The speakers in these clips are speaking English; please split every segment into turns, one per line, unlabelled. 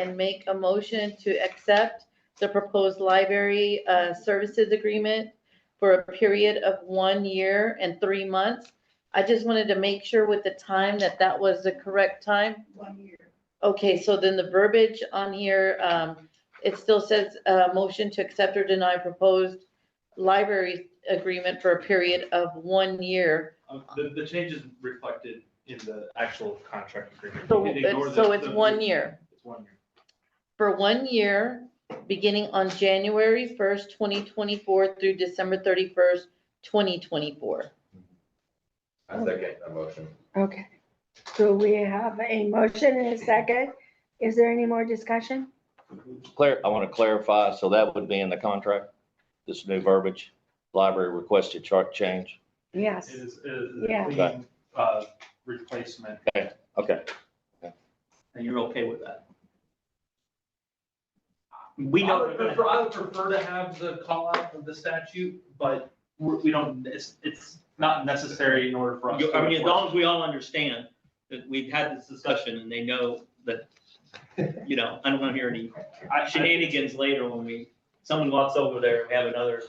and make a motion to accept the proposed library uh, services agreement for a period of one year and three months. I just wanted to make sure with the time that that was the correct time.
one year.
Okay, so then the verbiage on here, um, it still says, uh, motion to accept or deny proposed library agreement for a period of one year.
Um, The, the change is reflected in the actual contract agreement.
So
You can ignore
it's, so
the-
it's
the-
one year.
It's one year.
for one year, beginning on January first, twenty twenty-four through December thirty-first, twenty twenty-four.
I second that motion.
Okay, so we have a motion and a second. Is there any more discussion?
Clar, I want to clarify, so that would be in the contract, this new verbiage, library requested chart change.
Yes.
It is, it is a
Yeah.
clean, uh, replacement.
Okay,
And you're okay with that? We know.
I would prefer, I would prefer to have the call out of the statute, but we're- we don't, it's, it's not necessary in order for us.
You-
to
I mean, as
enforce.
long as we all understand that we've had this discussion and they know that, you know, I don't want to hear any
I- I-
shenanigans later when we, someone walks over there and we have another.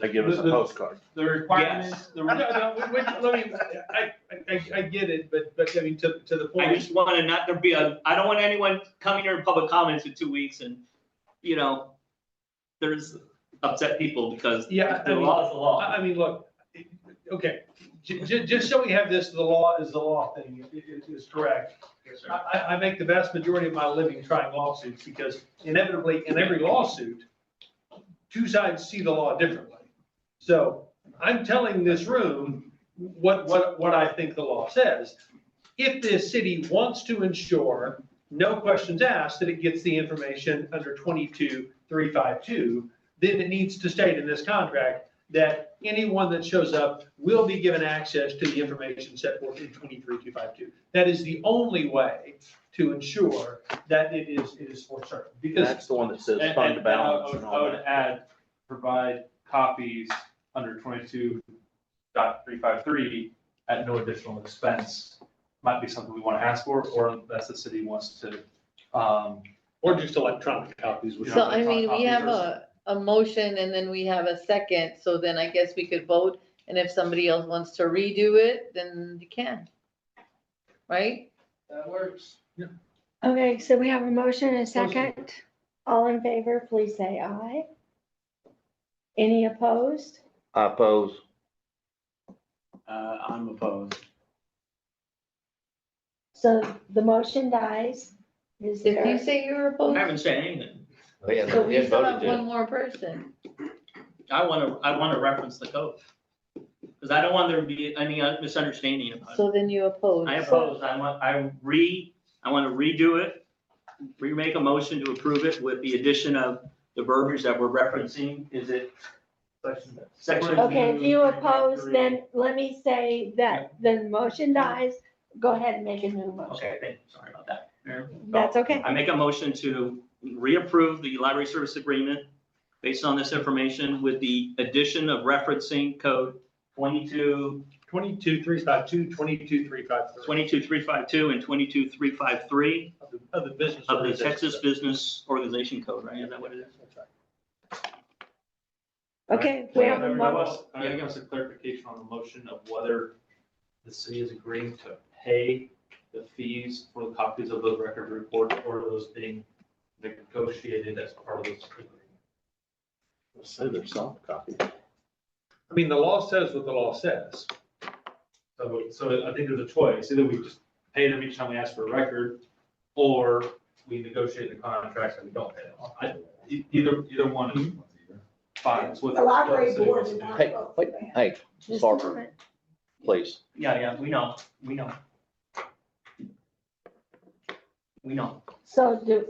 they give us a
The- the-
postcard.
The requirements, the.
No, no, no, which, let me, I, I- I, I get it, but, but I mean, to, to the
I
point,
just want to not, there be a, I don't want anyone coming here in public comments in two weeks and, you know, there's upset people because
Yeah, I
the
mean,
law is the
I,
law.
I mean, look, it- okay, ju- ju- just so we have this, the law is the law thing, i- i- is correct. I, I, I make the vast majority of my living trying lawsuits, because inevitably, in every lawsuit, two sides see the law differently. So I'm telling this room what, what, what I think the law says. If this city wants to ensure, no questions asked, that it gets the information under twenty-two, three, five, two, then it needs to state in this contract that anyone that shows up will be given access to the information set forth in twenty-three, two, five, two. That is the only way to ensure that it is, it is for certain, because
That's the one that says
And-
fund
and I- I
balance
would-
and all
I would
that.
add, provide copies under twenty-two dot three five three at no additional expense. Might be something we want to ask for, or that's the city wants to, um,
Or just electronic copies, which.
You
So
know,
I mean, we
electronic
have
copies
a, a motion and then we have a second, so then I guess we could vote. And if somebody else wants to redo it, then you can. Right?
That works.
Okay, so we have a motion and a second. All in favor, please say aye. Any opposed?
I oppose.
Uh, I'm opposed.
So the motion dies. Is
If you
there,
say you're
I
opposed,
haven't said anything.
We had,
so
we
we
had
still have
voted
one
to.
more person.
I want to, I want to reference the code. Because I don't want there to be any misunderstanding about it.
So then you oppose.
I oppose, I want, I re, I want to redo it, remake a motion to approve it with the addition of the verbiage that we're referencing. Is it
section-
section?
okay, if you
Two, three,
oppose,
three.
then let me say that the motion dies. Go ahead and make a new motion.
Okay, thank- sorry about that. Mayor.
That's okay.
I make a motion to reapprove the library service agreement based on this information with the addition of referencing code twenty-two
Twenty-two, three, five, two, twenty-two, three, five, three.
22352 and 22353
Of the- Of the business.
of the
organization.
Texas Business Organization Code, right? Is that what it is?
Okay, we have a
Everyone
mo-
else, I think it was a clarification on the motion of whether the city is agreeing to pay the fees for the copies of the record report or those being negotiated as part of this agreement.
Say they're soft copy.
I mean, the law says what the law says.
So, so I think there's a choice, either we just pay them each time we ask for a record, or we negotiate the contracts and we don't pay them. I, e- either, either one is
Mm-hmm.
fine, it's what.
The library
what the city
board
wants to
did
do.
not
Hey,
vote for
wait,
that.
hey,
just a
Harper,
moment.
please.
Yeah, yeah, we know, we know. We know.
So do,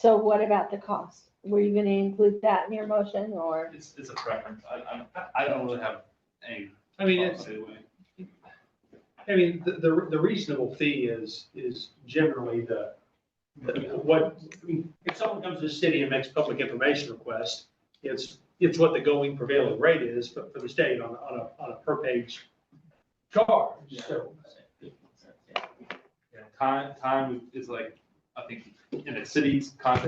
so what about the cost? Were you gonna include that in your motion or?
It's, it's a preference, I, I, I don't really have any.
I mean, it's,
policy way.
I mean, the, the the reasonable fee is, is generally the, the- what, I mean, if someone comes to the city and makes public information request, it's, it's what the going prevailing rate is for, for the state on, on a, on a per page charge, so.
Yeah, time, time is like I think in the city's context,